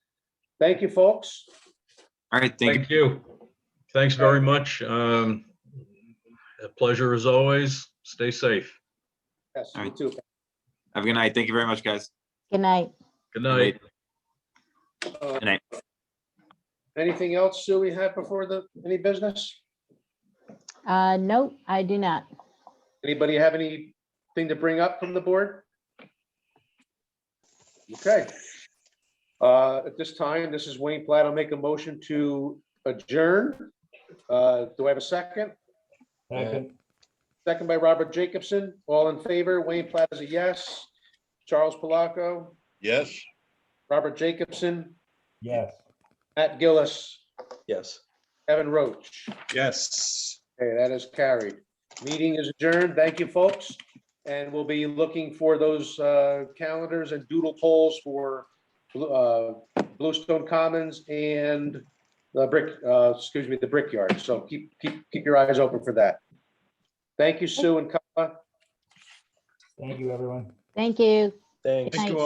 Thank you, folks. All right, thank you. Thank you. Thanks very much. Um, A pleasure as always. Stay safe. Yes, All you right. too. Have a good night. Thank you very much, guys. Good night. Good night. Uh, Good night. Anything else, Sue, we have before the, any business? Uh, no, I do not. Anybody have anything to bring up from the board? Okay. Uh, At this time, this is Wayne Platt. I'll make a motion to adjourn. Uh, Do I have a second? Second. Second by Robert Jacobson. All in favor? Wayne Platt is a yes. Charles Palaco, Yes. Robert Jacobson, Yes. Matt Gillis, Yes. Evan Roach. Yes. Okay, that is carried. Meeting is adjourned. Thank you, folks. And we'll be looking for those uh, calendars and doodle polls for uh, Bluestone Commons and the brick, uh, excuse me, the Brickyard. So keep, keep, keep your eyes open for that. Thank you, Sue and Kala. Thank you, everyone. Thank you. Thanks Night. to